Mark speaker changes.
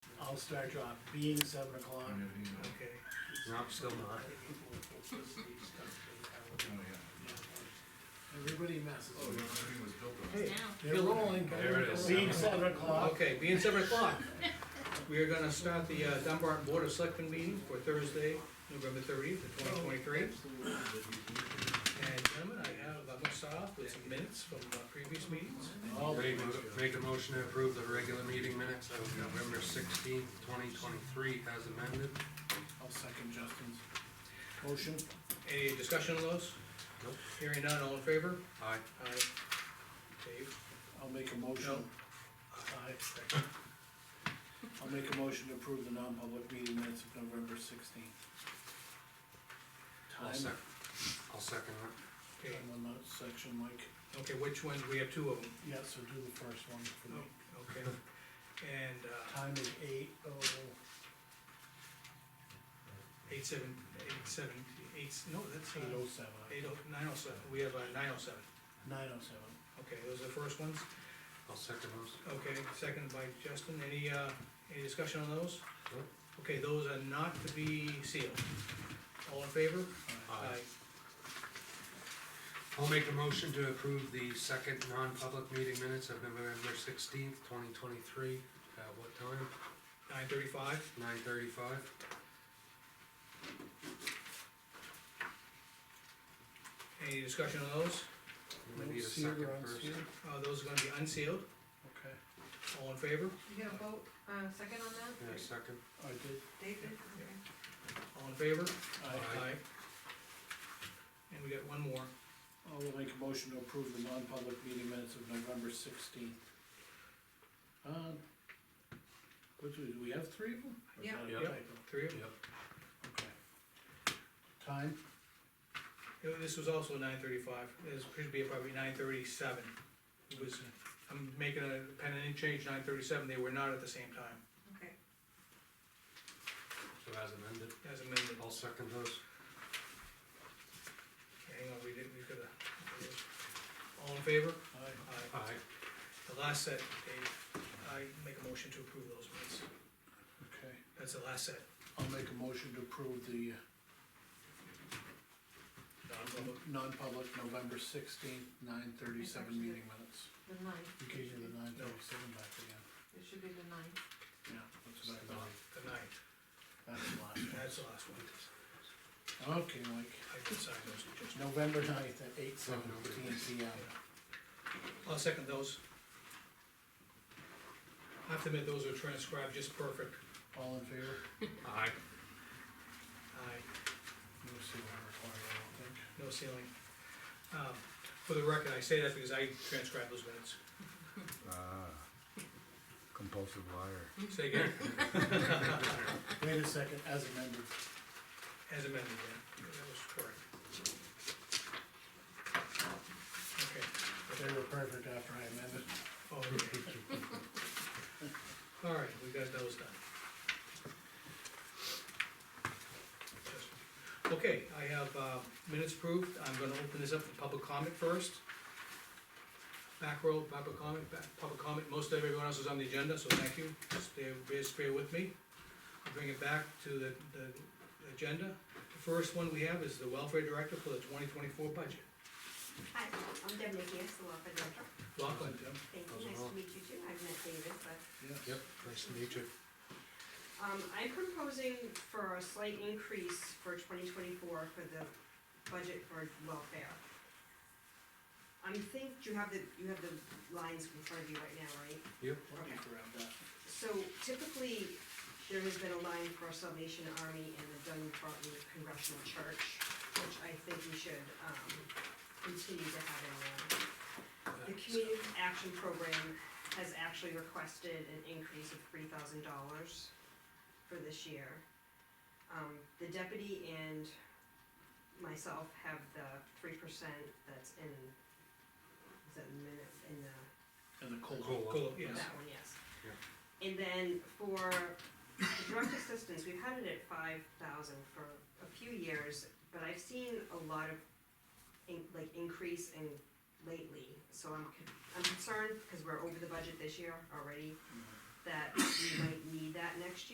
Speaker 1: I'll start on being seven o'clock.
Speaker 2: I haven't either.
Speaker 1: Okay.
Speaker 3: No, I'm still not.
Speaker 2: Oh, yeah.
Speaker 1: Everybody messes.
Speaker 2: Oh, the other thing was built on.
Speaker 1: Hey,
Speaker 4: Now.
Speaker 1: they're rolling.
Speaker 3: There it is.
Speaker 1: Being seven o'clock.
Speaker 3: Okay, being seven o'clock, we are gonna start the uh, Dunbar Board of Selectmen meeting for Thursday, November thirtieth, twenty twenty-three. And gentlemen, I have, I'm gonna start off with some minutes from uh, previous meetings.
Speaker 1: Oh,
Speaker 5: Make, a- make a motion to approve the regular meeting minutes of November sixteenth, twenty twenty-three as amended.
Speaker 1: I'll second Justin's motion.
Speaker 3: Any discussion on those?
Speaker 5: Nope.
Speaker 3: Hearing none, all in favor?
Speaker 5: Aye.
Speaker 3: Aye. Dave,
Speaker 1: I'll make a motion.
Speaker 3: No.
Speaker 1: Aye. I'll make a motion to approve the non-public meeting minutes of November sixteenth.
Speaker 5: I'll
Speaker 1: Time,
Speaker 5: sec, I'll second
Speaker 3: okay,
Speaker 1: time on that section, Mike.
Speaker 3: okay, which ones, we have two of them.
Speaker 1: Yeah, so do the first one for me.
Speaker 3: Oh. Okay, and, uh,
Speaker 1: Time is eight oh,
Speaker 3: eight seven, eight seven, eight, no, that's,
Speaker 1: eight
Speaker 3: uh,
Speaker 1: oh seven,
Speaker 3: eight oh, nine oh seven, we have, uh, nine oh seven.
Speaker 1: nine oh seven.
Speaker 3: Okay, those are the first ones.
Speaker 5: that. I'll second those.
Speaker 3: Okay, seconded by Justin. Any, uh, any discussion on those?
Speaker 5: Nope.
Speaker 3: Okay, those are not to be sealed. All in favor?
Speaker 5: Aye. I'll make a motion to approve the second non-public meeting minutes of November sixteenth, twenty twenty-three. At what time?
Speaker 3: Nine thirty-five?
Speaker 5: Nine thirty-five?
Speaker 3: Any discussion on those?
Speaker 5: We
Speaker 1: No
Speaker 5: need a
Speaker 1: sealed
Speaker 5: second
Speaker 1: or
Speaker 5: first.
Speaker 1: unsealed?
Speaker 3: Uh, those are gonna be unsealed.
Speaker 1: Okay,
Speaker 3: All in favor?
Speaker 4: You got a vote, uh, second on that,
Speaker 5: Yeah, second.
Speaker 1: I did,
Speaker 4: David?
Speaker 3: Yeah. All in favor?
Speaker 1: I,
Speaker 5: Aye.
Speaker 3: And we got one more.
Speaker 1: I will make a motion to approve the non-public meeting minutes of November sixteenth. Um, which, we- do we have three of them? Or is
Speaker 4: Yeah.
Speaker 1: that a
Speaker 5: Yeah.
Speaker 1: typo?
Speaker 3: Three of them.
Speaker 1: Okay. Time,
Speaker 3: Uh, This was also nine thirty-five. This should be probably nine thirty-seven. It was, I'm making a pending change, nine thirty-seven. They were not at the same time
Speaker 4: Okay,
Speaker 5: So as amended.
Speaker 3: as amended.
Speaker 5: I'll second those.
Speaker 3: Hang on, we didn't, we could have. All in favor?
Speaker 1: aye,
Speaker 3: Aye.
Speaker 5: Aye.
Speaker 3: Uh, The last set, Dave, I make a motion to approve those minutes.
Speaker 1: okay.
Speaker 3: That's the last set,
Speaker 1: I'll make a motion to approve the
Speaker 3: non-public.
Speaker 1: non-public November sixteenth, nine thirty-seven
Speaker 4: Actually,
Speaker 1: meeting minutes.
Speaker 4: the ninth,
Speaker 1: You gave you the nine thirty-seven back again.
Speaker 4: it should be the ninth.
Speaker 1: Yeah, that's what I thought.
Speaker 3: The ninth,
Speaker 1: That's the last one.
Speaker 3: that's the last one.
Speaker 1: Okay, Mike,
Speaker 3: I can sign those, just,
Speaker 1: November ninth at eight seventeen P M.
Speaker 3: I'll second those. I have to admit, those are transcribed just perfect.
Speaker 1: All in favor?
Speaker 5: Aye.
Speaker 3: Aye,
Speaker 1: No seal required, I don't think.
Speaker 3: no ceiling. Um, For the record, I say that because I transcribed those minutes.
Speaker 2: Ah, compulsive liar.
Speaker 3: Say again,
Speaker 1: Wait a second, as amended.
Speaker 3: as amended, yeah, that was correct. Okay.
Speaker 1: They were perfect after I amended.
Speaker 3: Oh, okay. All right, we got those done. Okay, I have uh, minutes approved, I'm gonna open this up for public comment first. Back row, public comment, back, public comment, most of everyone else is on the agenda, so thank you, stay, just bear with me. I'll bring it back to the, the agenda. The first one we have is the welfare director for the twenty twenty-four budget.
Speaker 6: Hi, I'm Deb Nicky, I'm the law firm director.
Speaker 3: Welcome, Jim.
Speaker 6: Thank
Speaker 5: How's it
Speaker 6: you, nice
Speaker 5: going?
Speaker 6: to meet you too. I've met David, but,
Speaker 1: Yes.
Speaker 5: Yep, nice to meet you.
Speaker 6: um, I'm proposing for a slight increase for twenty twenty-four for the budget for welfare. I'm think, you have the, you have the lines in front of you right now, right?
Speaker 5: Yep.
Speaker 1: Let me grab that.
Speaker 6: So typically, there has been a line for Salvation Army and the Dun Barton Congressional Church, which I think we should, um, continue to have in line. The community action program has actually requested an increase of three thousand dollars for this year. Um, the deputy and myself have the three percent that's in, is that minute, in the
Speaker 1: And the cold.
Speaker 5: Cool.
Speaker 3: Cool, yes.
Speaker 6: that one, yes. And then for direct assistance, we've had it at five thousand for a few years, but I've seen a lot of in, like increase in lately, so I'm,
Speaker 1: Mm-hmm.
Speaker 6: con- I'm concerned, cause we're over the budget this year already, that we might need that